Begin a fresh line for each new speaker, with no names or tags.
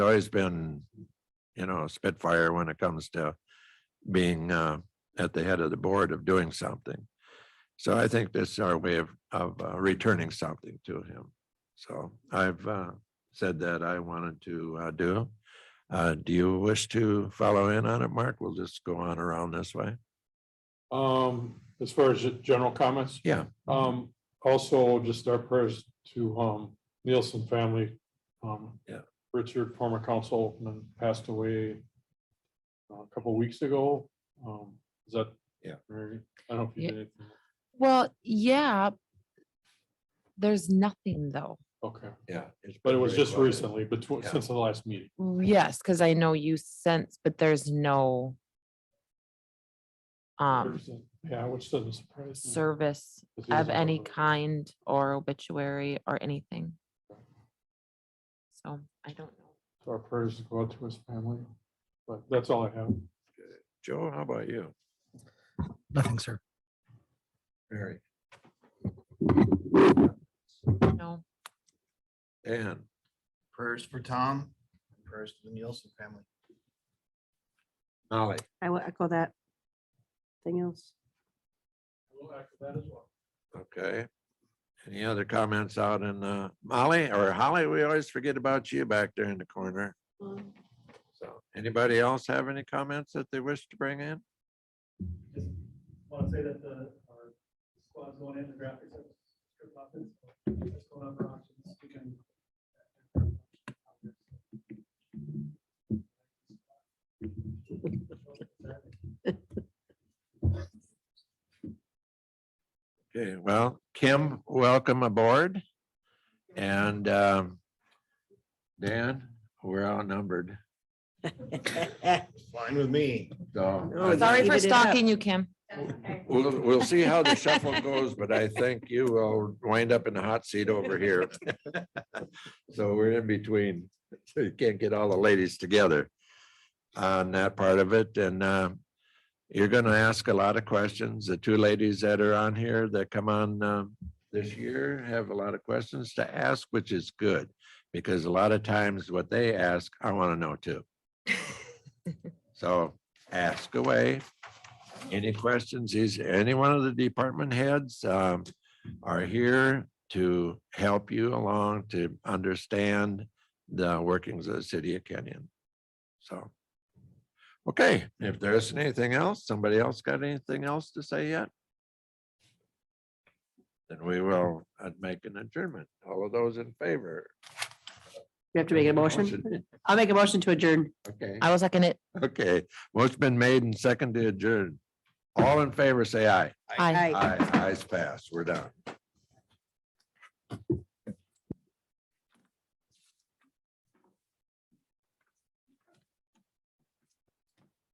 always been, you know, a Spitfire when it comes to being uh, at the head of the board of doing something. So I think this is our way of, of uh, returning something to him. So I've uh, said that I wanted to uh, do. Uh, Do you wish to follow in on it, Mark? We'll just go on around this way.
Um, as far as general comments,
Yeah,
um, also just our prayers to, um, Nielsen family. Um,
Yeah.
Richard, former councilman, passed away uh, a couple weeks ago. Um, is that?
Yeah.
Mary? I don't know if you
Yeah.
did. anything.
Well, yeah. There's nothing though.
Okay,
yeah.
but it was just recently, between, since the last meeting.
Yes, because I know you sense, but there's no um
Yeah, which doesn't surprise. me,
service
'cause he
of
doesn't
any
have a-
kind or obituary or anything.
Okay.
So I don't know.
So Our prayers go out to his family, but that's all I have.
Joe, how about you?
Nothing, sir.
Mary.
No,
Dan,
Prayers for Tom, prayers to the Nielsen family.
Molly,
I will echo that. Thing else.
okay. Any other comments out in uh, Molly or Holly? We always forget about you back there in the corner. So anybody else have any comments that they wish to bring in?
just want to say that the, our squad's going in, the graphics are stripped off, and so it's going up for auction this weekend.
Okay, well, Kim, welcome aboard. And um, Dan, we're outnumbered.
Fine with me.
So uh,
Oh,
I
yeah.
sorry
think
for
Leave it up.
stalking you, Kim.
we'll, we'll see how the shuffle goes, but I think you will wind up in the hot seat over here. So we're in between, so you can't get all the ladies together on that part of it. And um, you're going to ask a lot of questions. The two ladies that are on here that come on um, this year have a lot of questions to ask, which is good. Because a lot of times what they ask, I want to know too. So ask away. Any questions? Is any one of the department heads um, are here to help you along to understand the workings of the city of Kenyon. So. Okay, if there isn't anything else, somebody else got anything else to say yet? Then we will uh, make an adjournment. All of those in favor?
We have to make a motion. I'll make a motion to adjourn.
Okay,
I was looking at,
okay. What's been made and seconded adjourned. All in favor, say aye.
I.
Aye.
Aye, ayes passed. We're done.